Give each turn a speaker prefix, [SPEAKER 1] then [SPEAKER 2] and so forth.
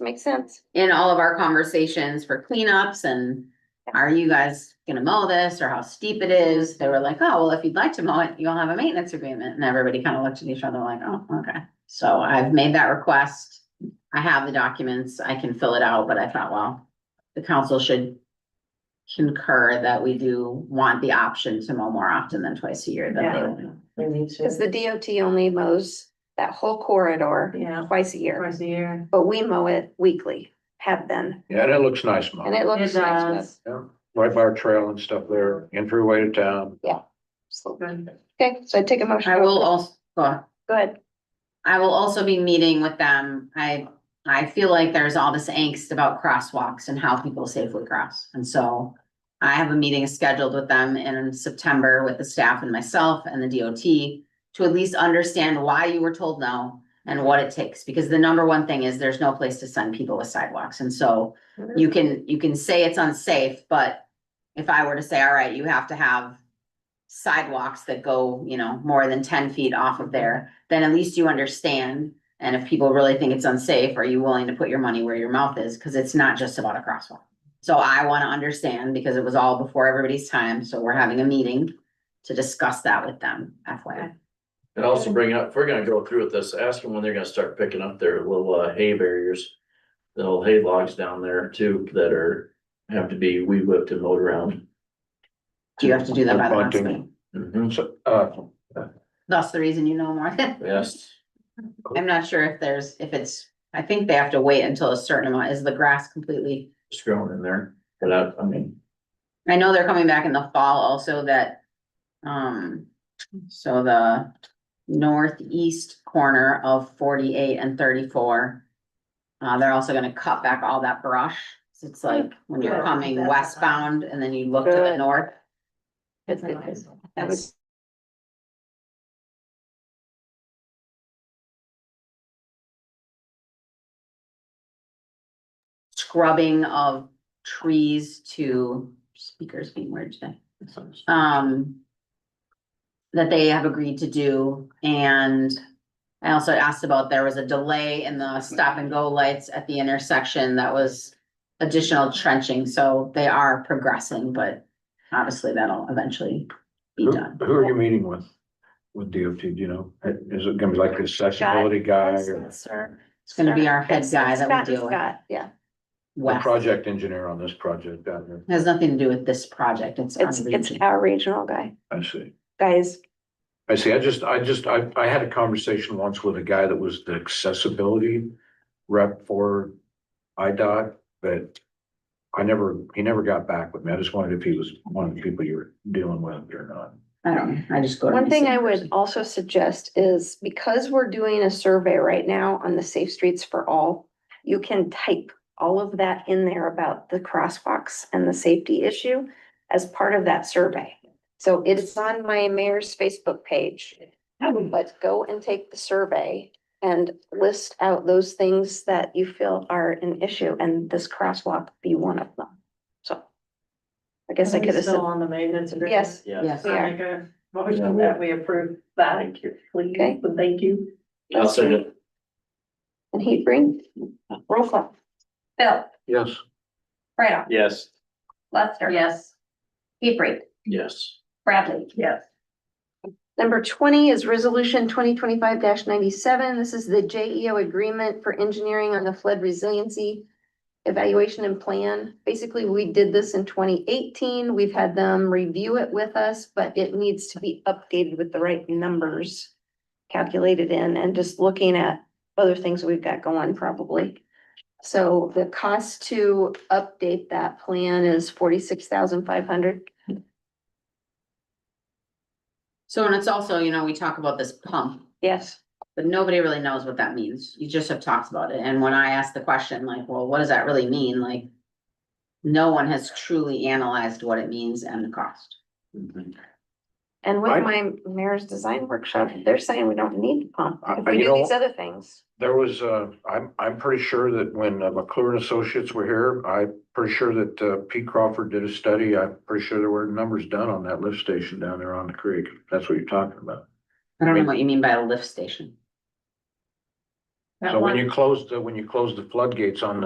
[SPEAKER 1] makes sense.
[SPEAKER 2] in all of our conversations for cleanups and are you guys gonna mow this or how steep it is? They were like, oh, well, if you'd like to mow it, you'll have a maintenance agreement. And everybody kind of looked at each other like, oh, okay. So I've made that request. I have the documents. I can fill it out, but I thought, well, the council should concur that we do want the option to mow more often than twice a year than they
[SPEAKER 3] Yeah.
[SPEAKER 2] would.
[SPEAKER 3] We need
[SPEAKER 1] Cause
[SPEAKER 3] to,
[SPEAKER 1] the DOT only mows that whole corridor
[SPEAKER 3] yeah,
[SPEAKER 1] twice a year,
[SPEAKER 3] twice a year.
[SPEAKER 1] but we mow it weekly, have been,
[SPEAKER 4] Yeah, that looks nice,
[SPEAKER 1] and
[SPEAKER 4] Mom.
[SPEAKER 1] it
[SPEAKER 3] It
[SPEAKER 1] looks nice.
[SPEAKER 3] does.
[SPEAKER 4] Right by our trail and stuff there, entryway to town.
[SPEAKER 1] but-
[SPEAKER 3] Good.
[SPEAKER 1] Okay, so I take a motion.
[SPEAKER 2] I will also, go ahead.
[SPEAKER 1] Go ahead.
[SPEAKER 2] I will also be meeting with them. I, I feel like there's all this angst about crosswalks and how people safely cross. And so I have a meeting scheduled with them in September with the staff and myself and the DOT to at least understand why you were told no and what it takes. Because the number one thing is there's no place to send people with sidewalks. And so you can, you can say it's unsafe, but if I were to say, all right, you have to have sidewalks that go, you know, more than ten feet off of there, then at least you understand. And if people really think it's unsafe, are you willing to put your money where your mouth is? Cause it's not just about a crosswalk. So I wanna understand because it was all before everybody's time, so we're having a meeting to discuss that with them, FYI.
[SPEAKER 5] And also bring up, if we're gonna go through with this, ask them when they're gonna start picking up their little uh, hay barriers. The little hay logs down there too, that are, have to be weed whipped and mowed around.
[SPEAKER 2] Do you have to do that by the next
[SPEAKER 4] Bunting.
[SPEAKER 2] meeting?
[SPEAKER 5] Mhm,
[SPEAKER 4] So, uh,
[SPEAKER 2] That's the reason you know more than.
[SPEAKER 5] Yes,
[SPEAKER 2] I'm not sure if there's, if it's, I think they have to wait until a certain amount, is the grass completely?
[SPEAKER 5] it's growing in there, but I, I mean,
[SPEAKER 2] I know they're coming back in the fall also that, um, so the northeast corner of forty-eight and thirty-four. Uh, they're also gonna cut back all that brush. So It's like when you're
[SPEAKER 3] Good.
[SPEAKER 2] coming westbound and then you look to the
[SPEAKER 1] Good.
[SPEAKER 2] north.
[SPEAKER 3] It's nice.
[SPEAKER 1] That was-
[SPEAKER 2] Scrubbing of trees to speakers being weird today. Um. That they have agreed to do and I also asked about, there was a delay in the stop and go lights at the intersection that was. Additional trenching, so they are progressing, but obviously that'll eventually be
[SPEAKER 4] who,
[SPEAKER 2] done.
[SPEAKER 4] who are you meeting with? With DOT, do you know? Is it gonna be like the accessibility guy or
[SPEAKER 2] It's gonna be our head guy that we deal with.
[SPEAKER 1] Scott, yeah,
[SPEAKER 4] the
[SPEAKER 2] west.
[SPEAKER 4] project engineer on this project down here?
[SPEAKER 2] Has nothing to do with this project, it's on
[SPEAKER 1] it's, it's
[SPEAKER 2] region.
[SPEAKER 1] our regional guy,
[SPEAKER 4] I see.
[SPEAKER 1] guys,
[SPEAKER 4] I see. I just, I just, I, I had a conversation once with a guy that was the accessibility rep for IDOT, but I never, he never got back with me. I just wondered if he was one of the people you were dealing with or not.
[SPEAKER 2] I don't, know. I just go. to
[SPEAKER 1] One
[SPEAKER 2] my
[SPEAKER 1] thing
[SPEAKER 2] same
[SPEAKER 1] I would
[SPEAKER 2] person.
[SPEAKER 1] also suggest is because we're doing a survey right now on the safe streets for all, you can type all of that in there about the crosswalks and the safety issue as part of that survey. So it's on my mayor's Facebook page, but go and take the survey and list out those things that you feel are an issue and this crosswalk be one of them. So I guess I
[SPEAKER 3] Are we
[SPEAKER 1] could have said,
[SPEAKER 3] Still on the maintenance agreement.
[SPEAKER 1] yes,
[SPEAKER 5] yeah.
[SPEAKER 2] Yes,
[SPEAKER 3] So
[SPEAKER 1] we are.
[SPEAKER 3] make a motion that we approve that, please,
[SPEAKER 1] Okay.
[SPEAKER 3] and thank you.
[SPEAKER 5] I'll send it.
[SPEAKER 1] and he bring, roll call.
[SPEAKER 6] Bill,
[SPEAKER 4] Yes.
[SPEAKER 6] Bradoff,
[SPEAKER 5] Yes.
[SPEAKER 6] Lester.
[SPEAKER 3] Yes.
[SPEAKER 6] Hebrink,
[SPEAKER 5] Yes.
[SPEAKER 6] Bradley,
[SPEAKER 3] Yes.
[SPEAKER 1] Number twenty is resolution twenty twenty-five ninety-seven. This is the J E O agreement for engineering on the flood resiliency evaluation and plan. Basically, we did this in twenty eighteen. We've had them review it with us, but it needs to be updated with the right numbers calculated in and just looking at other things we've got going probably. So the cost to update that plan is forty-six thousand five hundred.
[SPEAKER 2] So, and it's also, you know, we talk about this pump,
[SPEAKER 1] Yes.
[SPEAKER 2] but nobody really knows what that means. You just have talked about it. And when I asked the question, like, well, what does that really mean? Like, no one has truly analyzed what it means and the cost.
[SPEAKER 5] Mhm.
[SPEAKER 1] And with
[SPEAKER 4] I-
[SPEAKER 1] my mayor's design workshop, they're saying we don't need the pump,
[SPEAKER 4] I-
[SPEAKER 1] if
[SPEAKER 4] I-
[SPEAKER 1] we
[SPEAKER 4] you
[SPEAKER 1] do
[SPEAKER 4] know-
[SPEAKER 1] these other things.
[SPEAKER 4] There was, uh, I'm, I'm pretty sure that when uh, McClure and Associates were here, I'm pretty sure that, uh, Pete Crawford did a study. I'm pretty sure there were numbers done on that lift station down there on the creek. That's what you're talking about.
[SPEAKER 2] I don't know what you mean by a lift station.
[SPEAKER 4] So when you close the, when you close the floodgates on the